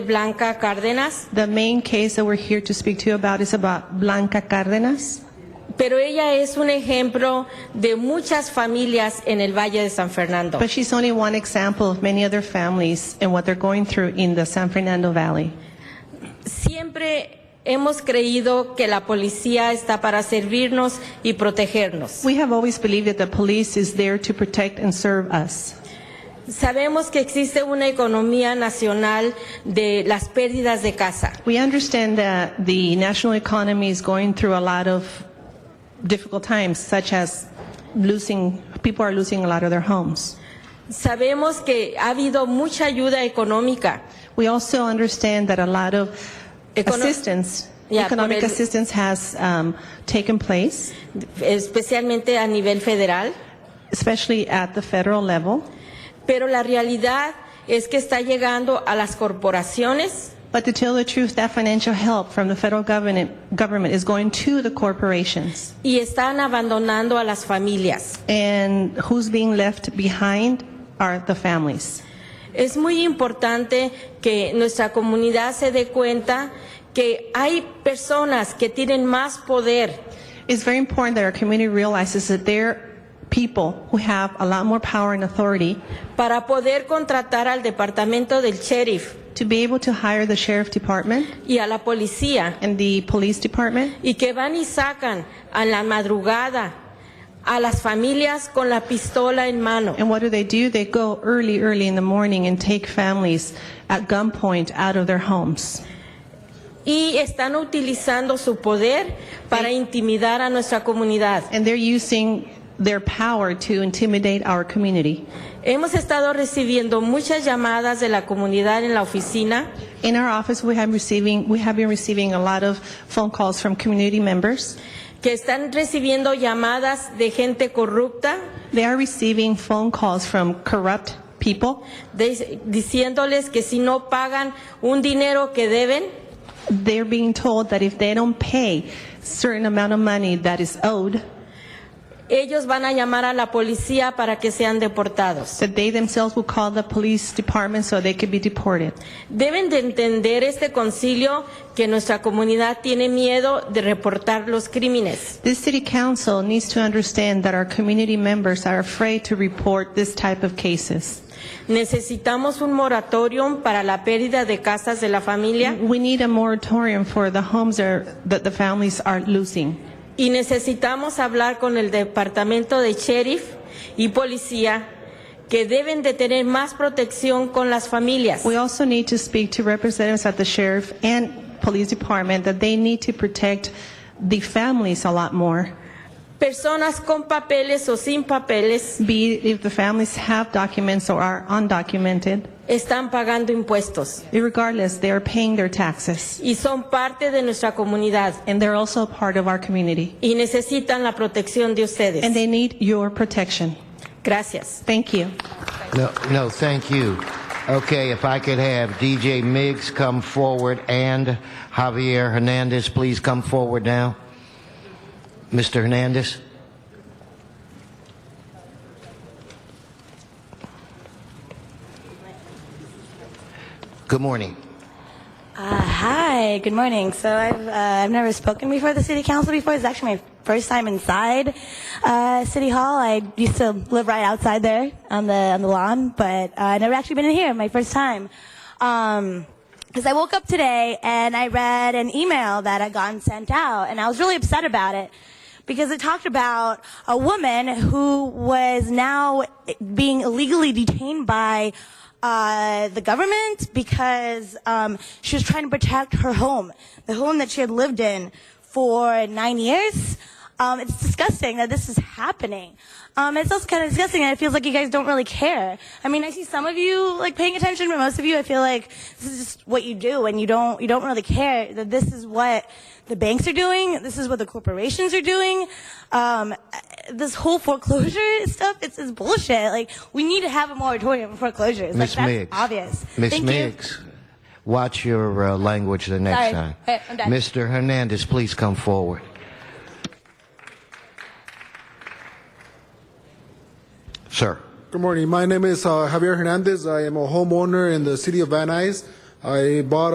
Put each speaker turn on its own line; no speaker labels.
Blanca Cárdenas,
The main case that we're here to speak to you about is about Blanca Cárdenas.
pero ella es un ejemplo de muchas familias en el Valle de San Fernando.
But she's only one example of many other families and what they're going through in the San Fernando Valley.
Siempre hemos creído que la policía está para servirnos y protegernos.
We have always believed that the police is there to protect and serve us.
Sabemos que existe una economía nacional de las pérdidas de casa.
We understand that the national economy is going through a lot of difficult times, such as losing, people are losing a lot of their homes.
Sabemos que ha habido mucha ayuda económica.
We also understand that a lot of
Econo-
assistance,
Yeah,
economic
por el-
assistance has um, taken place.
especialmente a nivel federal,
especially at the federal level.
pero la realidad es que está llegando a las corporaciones,
But to tell the truth, that financial help from the federal government, government is going to the corporations.
y están abandonando a las familias.
And who's being left behind are the families.
Es muy importante que nuestra comunidad se dé cuenta que hay personas que tienen más poder
It's very important that our community realizes that they're people who have a lot more power and authority
para poder contratar al departamento del sheriff
to be able to hire the sheriff department
y a la policía
and the police department.
y que van y sacan a la madrugada a las familias con la pistola en mano.
And what do they do? They go early, early in the morning and take families at gunpoint out of their homes.
y están utilizando su poder para intimidar a nuestra comunidad.
and they're using their power to intimidate our community.
Hemos estado recibiendo muchas llamadas de la comunidad en la oficina
In our office, we have receiving we have been receiving a lot of phone calls from community members.
que están recibiendo llamadas de gente corrupta
They are receiving phone calls from corrupt people,
de- diciéndoles que si no pagan un dinero que deben,
they're being told that if they don't pay certain amount of money that is owed,
ellos van a llamar a la policía para que sean deportados.
that they themselves will call the police department so they could be deported.
Deben de entender este concilio que nuestra comunidad tiene miedo de reportar los crímenes.
This city council needs to understand that our community members are afraid to report this type of cases.
Necesitamos un moratorium para la pérdida de casas de la familia
We need a moratorium for the homes that are- that the families are losing.
y necesitamos hablar con el departamento de sheriff y policía que deben de tener más protección con las familias.
We also need to speak to representatives at the sheriff and police department that they need to protect the families a lot more,
Personas con papeles o sin papeles
be it if the families have documents or are undocumented.
están pagando impuestos
Regardless, they are paying their taxes,
y son parte de nuestra comunidad
and they're also a part of our community,
y necesitan la protección de
and
ustedes.
they need your protection.
Gracias.
Thank you.
No, no, thank you. Okay, if I could have DJ Miggs come forward and Javier Hernandez, please come forward now. Mr. Hernandez? Good morning.
Uh, hi, good morning. So I've, uh, I've never spoken before the city council before. It's actually my first time inside uh, City Hall. I used to live right outside there on the on the lawn, but uh, I never actually been in here. My first time. Um, because I woke up today and I read an email that had gotten sent out, and I was really upset about it because it talked about a woman who was now being illegally detained by uh, the government because um, she was trying to protect her home, the home that she had lived in for nine years. Um, it's disgusting that this is happening. Um, it's also kind of disgusting that it feels like you guys don't really care. I mean, I see some of you like paying attention, but most of you, I feel like this is just what you do, and you don't you don't really care that this is what the banks are doing. This is what the corporations are doing. Um, this whole foreclosure stuff, it's, it's bullshit. Like we need to have a moratorium on foreclosures.
Miss
like that's
Miggs.
obvious.
Miss
Thank you.
Miggs, watch your uh, language the next
Sorry.
time.
Okay, I'm done.
Mr. Hernandez, please come forward. Sir.
Good morning. My name is uh, Javier Hernandez. I am a homeowner in the city of Van Nuys. I bought